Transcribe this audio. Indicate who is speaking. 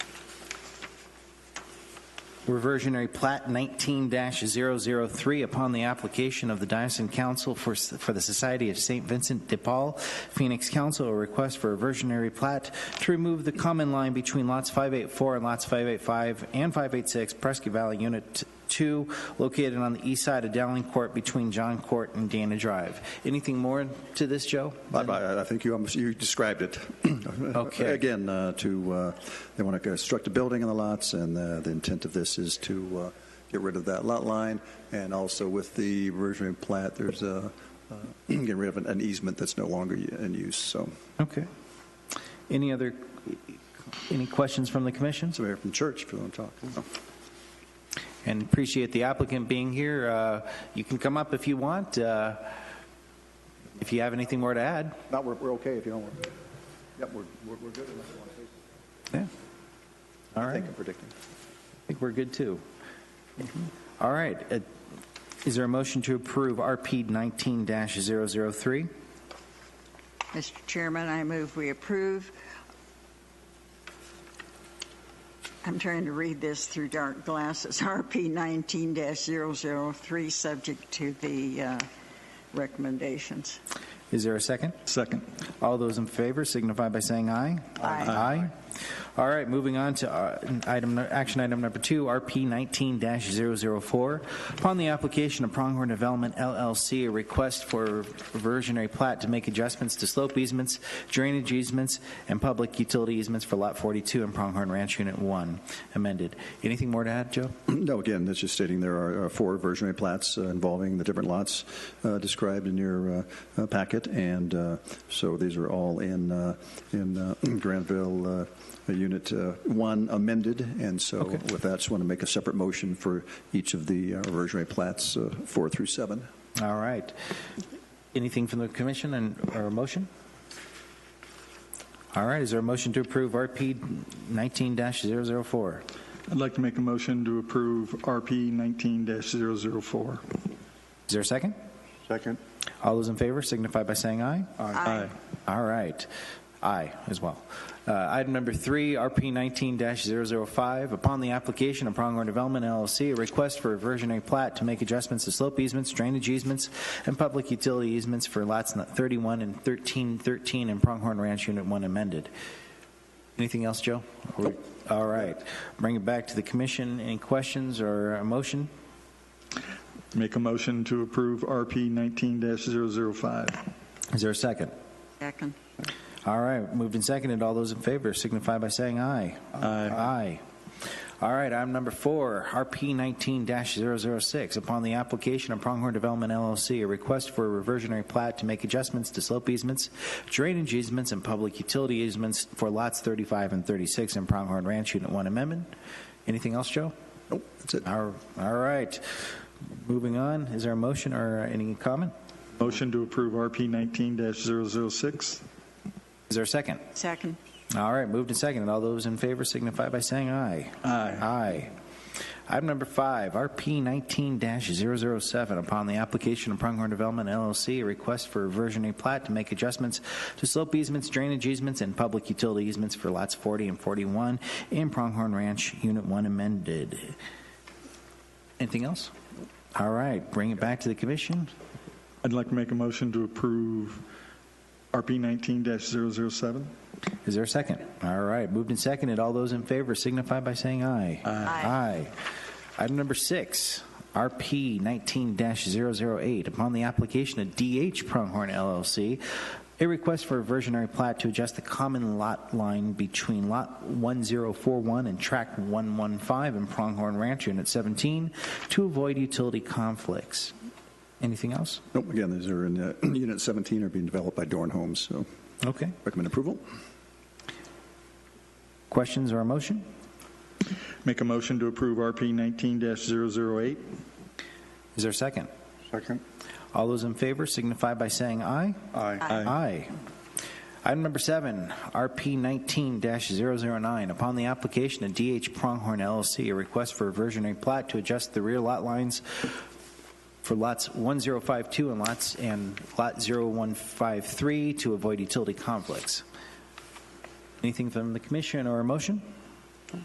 Speaker 1: reversionary plat 19-003 upon the application of the Dyson Council for, for the Society of St. Vincent de Paul, Phoenix Council, a request for a reversionary plat to remove the common line between lots 584 and lots 585 and 586 Prescott Valley Unit 2, located on the east side of Dowling Court between John Court and Dana Drive. Anything more to this, Joe?
Speaker 2: I- I I think you, almost- you described it.
Speaker 1: Okay.
Speaker 2: Again, uh, to, uh, they want to construct a building on the lots, and uh, the intent of this is to uh, get rid of that lot line, and also with the reversionary plat, there's a, uh, getting rid of an- an easement that's no longer in use, so.
Speaker 1: Okay. Any other, any questions from the commission?
Speaker 2: Somebody from church, if you want to talk.
Speaker 1: And appreciate the applicant being here. Uh, You can come up if you want, uh, if you have anything more to add.
Speaker 2: No, we're, we're okay if you don't want. Yep, we're, we're we're good unless you want to take.
Speaker 1: Yeah. All
Speaker 2: I
Speaker 1: right,
Speaker 2: think I'm predicting.
Speaker 1: I think we're good, too. All right, Uh, is there a motion to approve RP 19-003?
Speaker 3: Mr. Chairman, I move we approve. I'm trying to read this through dark glasses. RP 19-003, subject to the uh, recommendations.
Speaker 1: Is there a second?
Speaker 2: Second.
Speaker 1: All those in favor signify by saying aye.
Speaker 3: Aye.
Speaker 1: Aye. All right, moving on to uh, item, action item number two, RP 19-004. Upon the application of Pronghorn Development LLC, a request for reversionary plat to make adjustments to slope easements, drainage easements, and public utility easements for Lot 42 in Pronghorn Ranch Unit 1, amended. Anything more to add, Joe?
Speaker 2: No, again, that's just stating there are uh, four versionary plats uh, involving the different lots uh, described in your uh, uh, packet, and uh, so these are all in, uh, in uh, Granville uh, Unit uh, 1 amended, and so with that, just want to make a separate motion for each of the uh, versionary plats, uh, 4 through 7.
Speaker 1: All right. Anything from the commission and, or a motion? All right, is there a motion to approve RP 19-004?
Speaker 4: I'd like to make a motion to approve RP 19-004.
Speaker 1: Is there a second?
Speaker 5: Second.
Speaker 1: All those in favor signify by saying aye.
Speaker 4: Aye.
Speaker 1: All right. Aye as well. Uh, Item number three, RP 19-005. Upon the application of Pronghorn Development LLC, a request for a versionary plat to make adjustments to slope easements, drainage easements, and public utility easements for lots 31 and 1313 in Pronghorn Ranch Unit 1 amended. Anything else, Joe? All right. Bring it back to the commission. Any questions or a motion?
Speaker 4: Make a motion to approve RP 19-005.
Speaker 1: Is there a second?
Speaker 3: Second.
Speaker 1: All right, moved and seconded. All those in favor signify by saying aye. Aye. Aye. All right, item number four, RP 19-006. Upon the application of Pronghorn Development LLC, a request for a reversionary plat to make adjustments to slope easements, drainage easements, and public utility easements for lots 35 and 36 in Pronghorn Ranch Unit 1 Amendment. Anything else, Joe?
Speaker 2: Nope, that's it.
Speaker 1: All all right. Moving on, is there a motion or any comment?
Speaker 4: Motion to approve RP 19-006.
Speaker 1: Is there a second?
Speaker 3: Second.
Speaker 1: All right, moved and seconded. All those in favor signify by saying aye. Aye. Item number five, RP 19-007. Upon the application of Pronghorn Development LLC, a request for a versionary plat to make adjustments to slope easements, drainage easements, and public utility easements for lots 40 and 41 in Pronghorn Ranch, Unit 1 amended. Anything else? All right, bring it back to the commission.
Speaker 4: I'd like to make a motion to approve RP 19-007.
Speaker 1: Is there a second? All right, moved and seconded. All those in favor signify by saying aye. Aye.
Speaker 3: Aye.
Speaker 1: Item number six, RP 19-008. Upon the application of DH Pronghorn LLC, a request for a versionary plat to adjust the common lot line between Lot 1041 and Tract 115 in Pronghorn Ranch Unit 17 to avoid utility conflicts. Anything else?
Speaker 2: Nope, again, these are in uh, Unit 17, are being developed by Dorn Homes, so
Speaker 1: Okay.
Speaker 2: recommend approval.
Speaker 1: Questions or a motion?
Speaker 4: Make a motion to approve RP 19-008.
Speaker 1: Is there a second?
Speaker 5: Second.
Speaker 1: All those in favor signify by saying aye.
Speaker 5: Aye.
Speaker 1: Aye. Item number seven, RP 19-009. Upon the application of DH Pronghorn LLC, a request for a versionary plat to adjust the rear lot lines for lots 1052 and lots, and lot 0153 to avoid utility conflicts. Anything from the commission or a motion?